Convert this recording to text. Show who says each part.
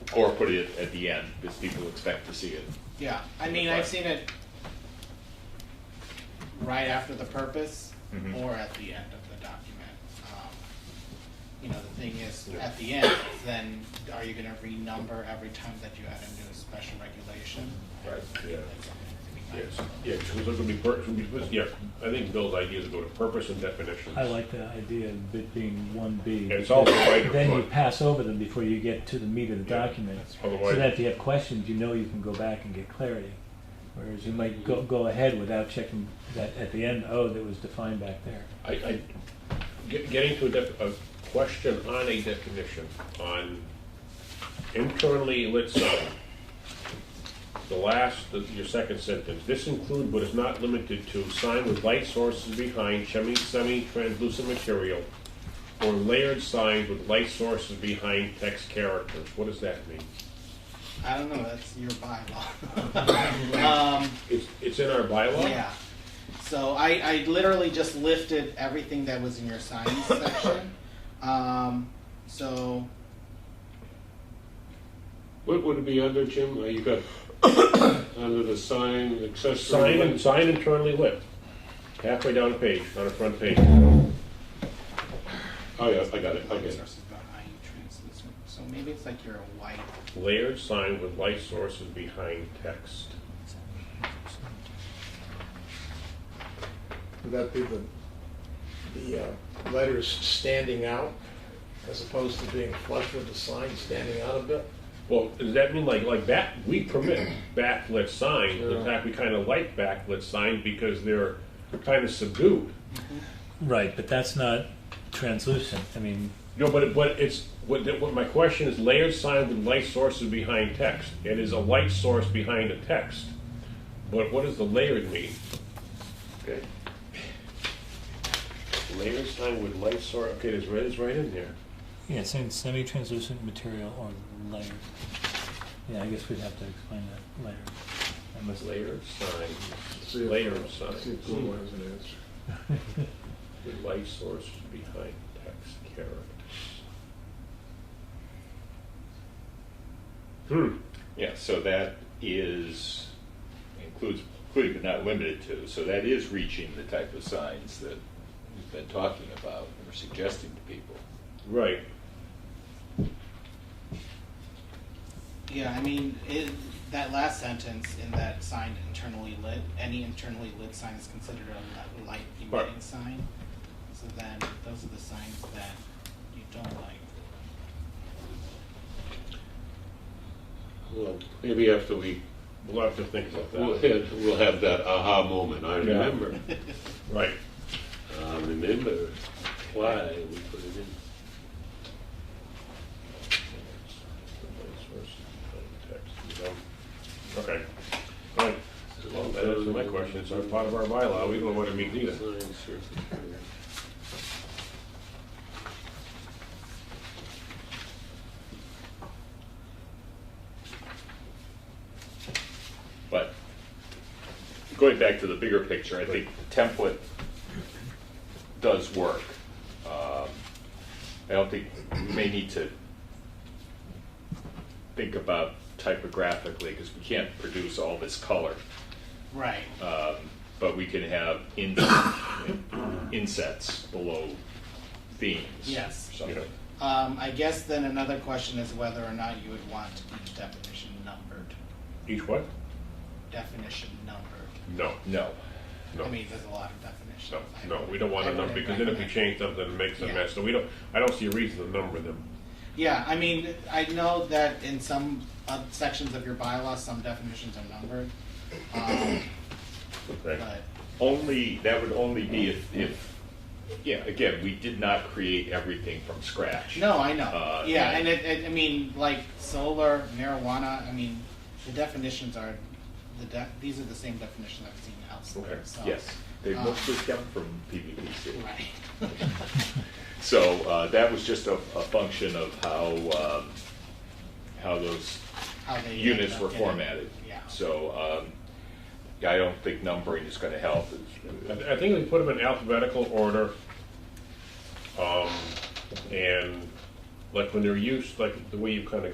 Speaker 1: incorporate um, it at the end because people expect to see it.
Speaker 2: Yeah, I mean, I've seen it right after the purpose
Speaker 3: Mm-hmm.
Speaker 1: Mhm.
Speaker 2: or at the end of the document. Um, You know, the thing is, at the end, then are you gonna renumber every time that you add a new special regulation?
Speaker 3: Right, yeah.
Speaker 2: That's something to be
Speaker 3: Yes,
Speaker 2: mindful of.
Speaker 3: yeah, because it's gonna be, pur- it's gonna be- yeah, I think Bill's idea is to go to purpose and definitions.
Speaker 4: I like the idea of it being one B.
Speaker 3: And it's all right up
Speaker 4: Then you
Speaker 3: front.
Speaker 4: pass over them before you get to the meat of the
Speaker 3: Yeah,
Speaker 4: document.
Speaker 3: that's
Speaker 4: So
Speaker 3: right.
Speaker 4: that if you have questions, you know you can go back and get clarity. Whereas you might go, go ahead without checking that at the end, oh, that was defined back there.
Speaker 3: I, I, get- getting to a def, a question on a definition, on internally lit sign. The last, the- your second sentence, this include but is not limited to sign with light sources behind semi, semi-translucent material or layered signs with light sources behind text characters. What does that mean?
Speaker 2: I don't know, that's your bylaw. Um,
Speaker 3: It's, it's in our bylaw?
Speaker 2: Yeah. So I, I literally just lifted everything that was in your signs section. Um, so
Speaker 5: What would it be under, Jim? Uh, You got under the sign accessory.
Speaker 3: Sign,
Speaker 5: light-
Speaker 3: and sign internally lit, halfway down the page, on the front page.
Speaker 5: Oh, yeah, I got it, I get it.
Speaker 2: Sources behind translucent. So maybe it's like you're a white.
Speaker 3: Layered sign with light sources behind text.
Speaker 6: Would that be the, the uh, letters standing out as opposed to being flush with the sign standing out a bit?
Speaker 3: Well, does that mean like, like back, we permit backlit signs, in
Speaker 5: Yeah.
Speaker 3: fact, we kind of like backlit signs because they're kind of subdued.
Speaker 4: Right, but that's not translucent. I mean,
Speaker 3: No, but, it- but it's, what, the- what my question is layered sign with light sources behind text. It is a light source behind the text, but what does the layered mean? Okay. Layered sign with light source, okay, it's right, it's right in there.
Speaker 4: yeah, it's saying semi-translucent material or layered. Yeah, I guess we'd have to explain that later. I must-
Speaker 3: Layered signs,
Speaker 6: See if-
Speaker 3: layered
Speaker 6: See if
Speaker 3: signs
Speaker 6: Google has an answer.
Speaker 3: with light sources behind text characters. Hmm,
Speaker 1: Yeah, so that is, includes, including but not limited to, so that is reaching the type of signs that we've been talking about or suggesting to people.
Speaker 3: right.
Speaker 2: Yeah, I mean, it, that last sentence in that sign internally lit, any internally lit sign is considered a li- light emitting
Speaker 3: Right.
Speaker 2: sign. So then those are the signs that you don't like.
Speaker 5: Well, Maybe after we,
Speaker 3: We'll have to think about
Speaker 5: we'll
Speaker 3: that.
Speaker 5: hit, we'll have that aha moment, I
Speaker 3: Yeah.
Speaker 5: remember. Um,
Speaker 3: Right.
Speaker 5: I remember why we put it in.
Speaker 3: Okay. All right. Well, that answers my question. It's our part of our bylaw. Oh, We don't know what it means either.
Speaker 5: Sign surface area.
Speaker 1: But going back to the bigger picture, I think the template does work. Um, I don't think, we may need to think about typographically, because we can't produce all this color.
Speaker 2: Right.
Speaker 3: Uh.
Speaker 1: But we can have in, insets below themes.
Speaker 2: Yes.
Speaker 1: or Something.
Speaker 2: Um, I guess then another question is whether or not you would want each definition numbered.
Speaker 3: Each what?
Speaker 2: Definition numbered.
Speaker 3: No,
Speaker 1: No.
Speaker 3: no,
Speaker 2: I mean, there's a lot of definitions.
Speaker 3: no,
Speaker 2: I-
Speaker 3: no. We don't want
Speaker 2: I
Speaker 3: to number,
Speaker 2: wouldn't
Speaker 3: because then if we
Speaker 2: recommend-
Speaker 3: change something, it makes a
Speaker 2: Yeah.
Speaker 3: mess. So we don't, I don't see a reason to number them.
Speaker 2: Yeah, I mean, I know that in some uh, sections of your bylaws, some definitions are numbered, um,
Speaker 3: Right.
Speaker 2: but
Speaker 1: Only, that would only be if, if, yeah, again, we did not create everything from scratch.
Speaker 2: no, I know.
Speaker 1: Uh,
Speaker 2: Yeah,
Speaker 1: yeah.
Speaker 2: and it, it, I mean, like solar, marijuana. I mean, the definitions are the de- these are the same definitions I've seen elsewhere.
Speaker 3: Okay,
Speaker 2: So,
Speaker 1: Yes, they
Speaker 2: uh,
Speaker 1: mostly come from PVPC.
Speaker 2: Right.
Speaker 1: So uh, that was just a, a function of how, um, how those
Speaker 2: How they
Speaker 1: units
Speaker 2: ended
Speaker 1: were
Speaker 2: up getting-
Speaker 1: formatted.
Speaker 2: Yeah.
Speaker 1: So um, I don't think numbering is going to help.
Speaker 3: I I think we put them in alphabetical order. Um, and like when they're used, like the way you kind of